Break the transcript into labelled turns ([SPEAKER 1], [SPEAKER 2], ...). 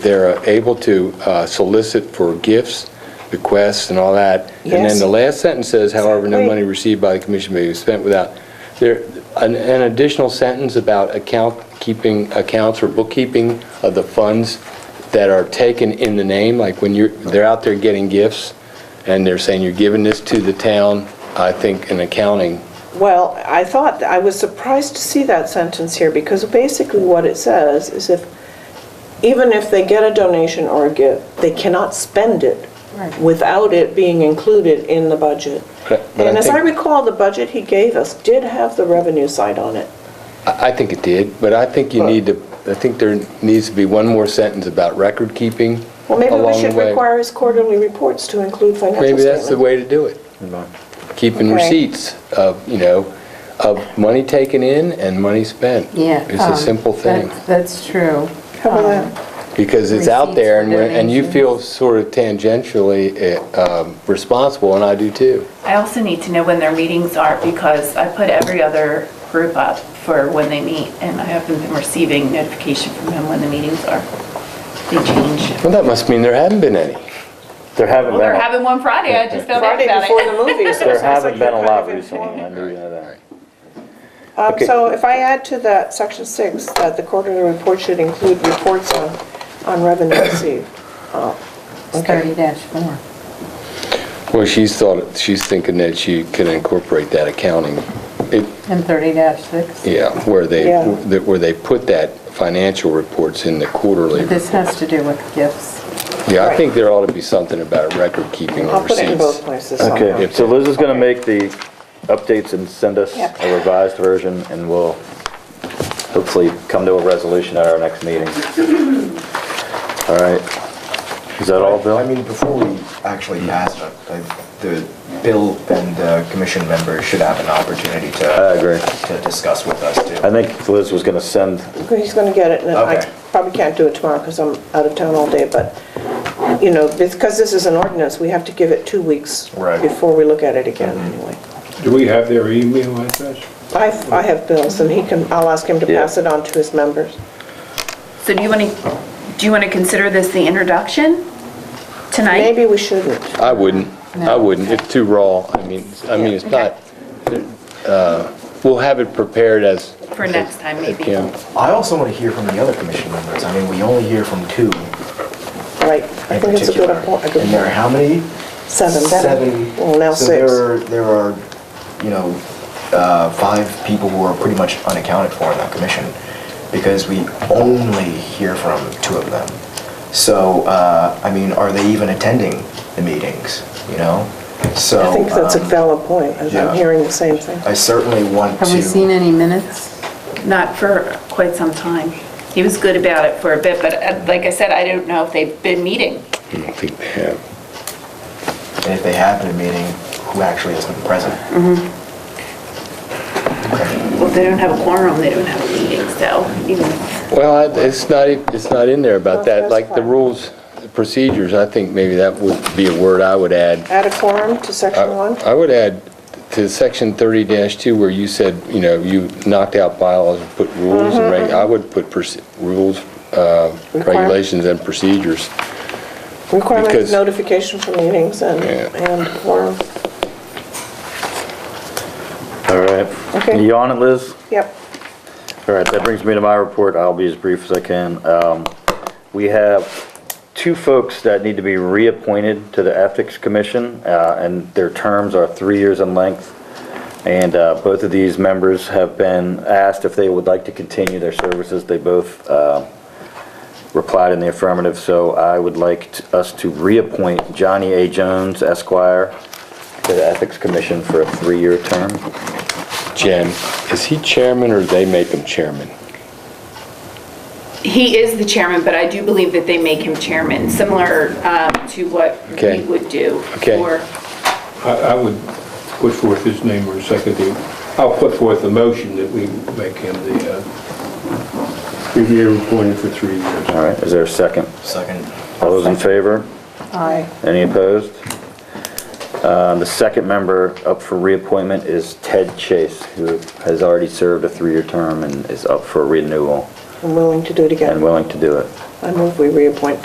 [SPEAKER 1] they're able to uh, solicit for gifts, bequests, and all that. And then
[SPEAKER 2] Yes.
[SPEAKER 1] the last sentence says, however, no
[SPEAKER 2] Exactly.
[SPEAKER 1] money received by the commission may be spent without, there, an an additional sentence about account keeping, accounts or bookkeeping of the funds that are taken in the name, like when you're, they're out there getting gifts, and they're saying you're giving this to the town, I think an accounting,
[SPEAKER 2] Well, I thought, I was surprised to see that sentence here, because basically what it says is if, even if they get a donation or a gift, they cannot spend it
[SPEAKER 3] Right.
[SPEAKER 2] without it being included in the budget.
[SPEAKER 1] But- but I
[SPEAKER 2] And as I
[SPEAKER 1] think-
[SPEAKER 2] recall, the budget he gave us did have the revenue side on it.
[SPEAKER 1] I I think it did, but I think you need to, I think there needs to be one more sentence about record keeping
[SPEAKER 2] Well, maybe we
[SPEAKER 1] along the
[SPEAKER 2] should
[SPEAKER 1] way.
[SPEAKER 2] require his quarterly reports to include financial
[SPEAKER 1] Maybe that's the
[SPEAKER 2] statements.
[SPEAKER 1] way to do it. Keeping
[SPEAKER 2] Okay.
[SPEAKER 1] receipts of, you know, of money taken in and money spent.
[SPEAKER 3] Yeah.
[SPEAKER 1] It's a
[SPEAKER 3] um,
[SPEAKER 1] simple
[SPEAKER 3] that-
[SPEAKER 1] thing,
[SPEAKER 3] That's true.
[SPEAKER 2] How about
[SPEAKER 3] Um,
[SPEAKER 2] that?
[SPEAKER 1] because it's out there and,
[SPEAKER 3] Receipts
[SPEAKER 1] we're-
[SPEAKER 3] for
[SPEAKER 1] and you
[SPEAKER 3] donations.
[SPEAKER 1] feel sort of tangentially eh, um, responsible, and I do too.
[SPEAKER 4] I also need to know when their meetings are because I put every other group up for when they meet and I haven't been receiving notification from him when the meetings are. They change.
[SPEAKER 1] Well, that must mean there haven't been any.
[SPEAKER 5] There haven't
[SPEAKER 4] Well, they're
[SPEAKER 5] been,
[SPEAKER 4] having one Friday, I just found out
[SPEAKER 2] Friday
[SPEAKER 4] about
[SPEAKER 2] before the
[SPEAKER 4] it.
[SPEAKER 2] movies. so it
[SPEAKER 5] there
[SPEAKER 2] sounds like
[SPEAKER 5] haven't been a
[SPEAKER 2] you're
[SPEAKER 5] lot
[SPEAKER 2] kind of
[SPEAKER 5] recently,
[SPEAKER 2] informed.
[SPEAKER 5] I do know that.
[SPEAKER 2] Um,
[SPEAKER 1] Okay.
[SPEAKER 2] So if I add to that, section six, that the quarterly report should include reports on, on revenue uh, received.
[SPEAKER 3] It's thirty four.
[SPEAKER 1] Well, she's thought, she's thinking that she can incorporate that accounting, it-
[SPEAKER 3] And thirty six.
[SPEAKER 1] yeah, where they,
[SPEAKER 2] Yeah.
[SPEAKER 1] that- where they put that financial reports in the quarterly.
[SPEAKER 3] This has to do with gifts.
[SPEAKER 1] Yeah, I think there ought to be something about record keeping
[SPEAKER 2] I'll
[SPEAKER 1] of
[SPEAKER 2] put it in both
[SPEAKER 1] receipts.
[SPEAKER 2] places somehow.
[SPEAKER 5] Okay, so Liz is gonna make the updates and send us
[SPEAKER 2] Yep.
[SPEAKER 5] a revised version, and we'll hopefully come to a resolution at our next meeting. All right, is that all,
[SPEAKER 6] I
[SPEAKER 5] Bill? Hmm.
[SPEAKER 6] mean, before we actually pass it, like, the bill and the commission members should have an opportunity
[SPEAKER 5] I
[SPEAKER 6] to,
[SPEAKER 5] agree.
[SPEAKER 6] to discuss with us too.
[SPEAKER 5] I think Liz was gonna send,
[SPEAKER 2] He's gonna get it, and I
[SPEAKER 6] Okay.
[SPEAKER 2] probably can't do it tomorrow, because I'm out of town all day, but, you know, because this is an ordinance, we have to give it two weeks
[SPEAKER 6] Right.
[SPEAKER 2] before we look at it again, anyway.
[SPEAKER 7] Do we have their email address?
[SPEAKER 2] I've, I have bills, and he can, I'll ask him to
[SPEAKER 5] Yeah.
[SPEAKER 2] pass it on to his members.
[SPEAKER 4] So do you want to, do you want to consider this the introduction tonight?
[SPEAKER 2] Maybe we shouldn't.
[SPEAKER 1] I wouldn't, I wouldn't, it's too raw, I mean, it's- I mean, it's not, uh, we'll have it prepared as,
[SPEAKER 4] For next time, maybe.
[SPEAKER 1] you know,
[SPEAKER 6] I also want to hear from the other commission members. I mean, we only hear from two in
[SPEAKER 2] Right, I think it's a good,
[SPEAKER 6] particular.
[SPEAKER 2] appoint- a good,
[SPEAKER 6] And there are how many?
[SPEAKER 2] seven.
[SPEAKER 6] Seven.
[SPEAKER 2] Well, now
[SPEAKER 6] So
[SPEAKER 2] six.
[SPEAKER 6] there are, there are, you know, uh, five people who are pretty much unaccounted for in that commission because we only hear from two of them. So, uh, I mean, are they even attending the meetings, you know? So.
[SPEAKER 2] I think that's a
[SPEAKER 6] um,
[SPEAKER 2] valid point, and
[SPEAKER 6] yeah.
[SPEAKER 2] I'm hearing the same thing.
[SPEAKER 6] I certainly want to.
[SPEAKER 3] Have we seen any minutes?
[SPEAKER 4] Not for quite some time. He was good about it for a bit, but uh, like I said, I don't know if they've been meeting.
[SPEAKER 1] I don't think they have.
[SPEAKER 6] And if they have been meeting, who actually has been present?
[SPEAKER 2] Mm.
[SPEAKER 6] Okay.
[SPEAKER 4] Well, if they don't have a quorum, they don't have a meeting, so even if
[SPEAKER 1] Well, I- it's not, e- it's not in there about that,
[SPEAKER 2] That's
[SPEAKER 1] like the
[SPEAKER 2] fine.
[SPEAKER 1] rules, the procedures, I think maybe that would be a word I would add.
[SPEAKER 2] Add a quorum to
[SPEAKER 1] I
[SPEAKER 6] Uh,
[SPEAKER 2] section one?
[SPEAKER 1] I would add to section thirty two where you said, you know, you knocked out bylaws and put rules and
[SPEAKER 2] Mm-hmm.
[SPEAKER 1] reg, I would put proce- rules, uh,
[SPEAKER 2] Requirement.
[SPEAKER 1] regulations and procedures.
[SPEAKER 2] Requirement of
[SPEAKER 1] Because-
[SPEAKER 2] notification for meetings and,
[SPEAKER 1] Yeah.
[SPEAKER 2] and quorum.
[SPEAKER 5] all right.
[SPEAKER 2] Okay.
[SPEAKER 5] You on it, Liz?
[SPEAKER 2] Yep.
[SPEAKER 5] All right, that brings me to my report. I'll be as brief as I can. Um, We have two folks that need to be reappointed to the Ethics Commission, uh, and their terms are three years in length. And uh, both of these members have been asked if they would like to continue their services. They both uh, replied in the affirmative, so I would like t- us to reappoint Johnny A. Jones Esquire to the Ethics Commission for a three-year term.
[SPEAKER 1] Jen, is he chairman or they make him chairman?
[SPEAKER 4] He is the chairman, but I do believe that they make him chairman, similar um, to what
[SPEAKER 1] Okay.
[SPEAKER 4] we would do
[SPEAKER 1] Okay.
[SPEAKER 4] for
[SPEAKER 7] I, I would put forth his name or second the, I'll put forth a motion that we make him the, uh, review appointed for three years.
[SPEAKER 5] All right, is there a second?
[SPEAKER 6] Second.
[SPEAKER 5] All those in favor?
[SPEAKER 3] Aye.
[SPEAKER 5] Any opposed? Uh, The second member up for reappointment is Ted Chase, who has already served a three-year term and is up for renewal. I'm willing to do it
[SPEAKER 2] and
[SPEAKER 5] again.
[SPEAKER 2] willing to do it.
[SPEAKER 5] I move we reappoint